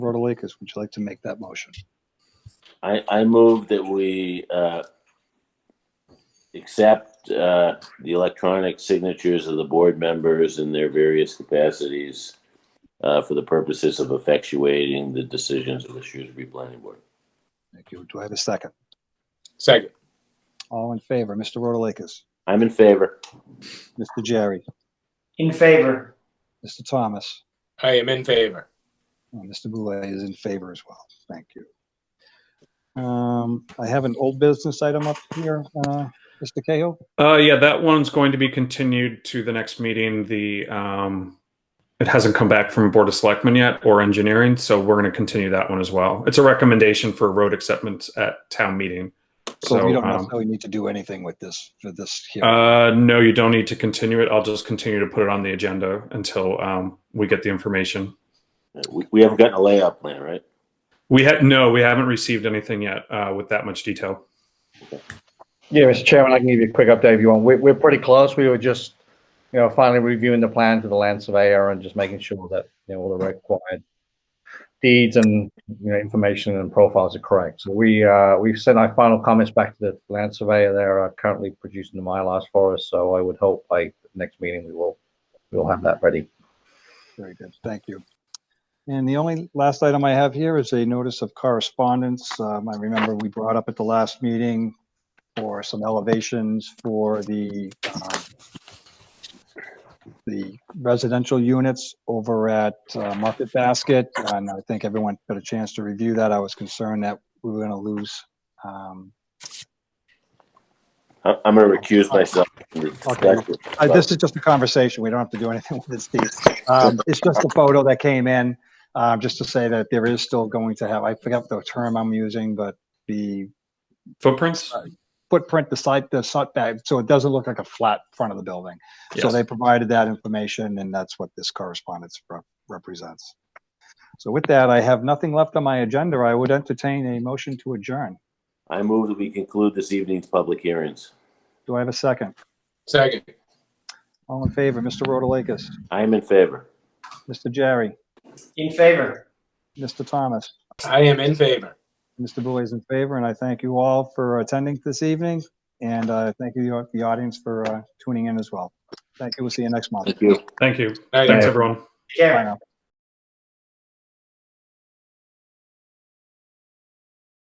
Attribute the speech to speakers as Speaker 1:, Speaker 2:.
Speaker 1: Rotalakis, would you like to make that motion?
Speaker 2: I, I move that we uh, accept uh, the electronic signatures of the board members in their various capacities uh, for the purposes of effectuating the decisions of the Shrewsbury Planning Board.
Speaker 1: Thank you. Do I have a second?
Speaker 3: Second.
Speaker 1: All in favor, Mr. Rotalakis,
Speaker 2: I'm in favor.
Speaker 1: Mr. Jerry,
Speaker 4: In favor.
Speaker 1: Mr. Thomas,
Speaker 3: I am in favor.
Speaker 1: and Mr. Boulay is in favor as well. Thank you. Um, I have an old business item up here, uh, Mr. Cahill.
Speaker 5: Uh, yeah, that one's going to be continued to the next meeting. The um, it hasn't come back from Board of Selectmen yet or engineering, so we're going to continue that one as well. It's a recommendation for road acceptance at town meeting.
Speaker 1: So
Speaker 5: So,
Speaker 1: we don't
Speaker 5: um,
Speaker 1: necessarily need to do anything with this, for this here.
Speaker 5: Uh, no, you don't need to continue it. I'll just continue to put it on the agenda until um, we get the information.
Speaker 2: Uh, We, we haven't gotten a layout plan, right?
Speaker 5: We had no, we haven't received anything yet uh, with that much detail.
Speaker 6: Yeah, Mr. Chairman, I can give you a quick update if you want. We're, we're pretty close. We were just, you know, finally reviewing the plan for the land surveyor and just making sure that, you know, all the required deeds and, you know, information and profiles are correct. So we, uh, we've sent our final comments back to the land surveyor. They're uh, currently producing the MyLars for us, so I would hope by the next meeting we will, we'll have that ready.
Speaker 1: Very good. Thank you. And the only last item I have here is a notice of correspondence. Um, I remember we brought up at the last meeting for some elevations for the, um, the residential units over at uh, Market Basket. And I think everyone got a chance to review that. I was concerned that we were going to lose, um,
Speaker 2: I- I'm going to recuse myself. from the
Speaker 1: Okay.
Speaker 2: discussion.
Speaker 1: Uh, this is just a conversation. We don't have to do anything with it, Steve. Um, it's just a photo that came in, um, just to say that there is still going to have, I forget the term I'm using, but the
Speaker 5: Footprints?
Speaker 1: footprint, the side, the setback, so it doesn't look like a flat front of the building. So
Speaker 5: Yes.
Speaker 1: they provided that information and that's what this correspondence rep- represents. So with that, I have nothing left on my agenda. I would entertain a motion to adjourn.
Speaker 2: I move that we conclude this evening's public hearings.
Speaker 1: Do I have a second?
Speaker 3: Second.
Speaker 1: All in favor, Mr. Rotalakis,
Speaker 2: I am in favor.
Speaker 1: Mr. Jerry,
Speaker 4: In favor.
Speaker 1: Mr. Thomas?
Speaker 3: I am in favor.
Speaker 1: Mr. Boulay is in favor, and I thank you all for attending this evening, and uh, thank you, the audience, for uh, tuning in as well. Thank you. We'll see you next month.
Speaker 2: Thank you.
Speaker 5: Thank you.
Speaker 3: Aye.
Speaker 5: Thanks, everyone.
Speaker 1: Bye
Speaker 4: Karen.
Speaker 1: now.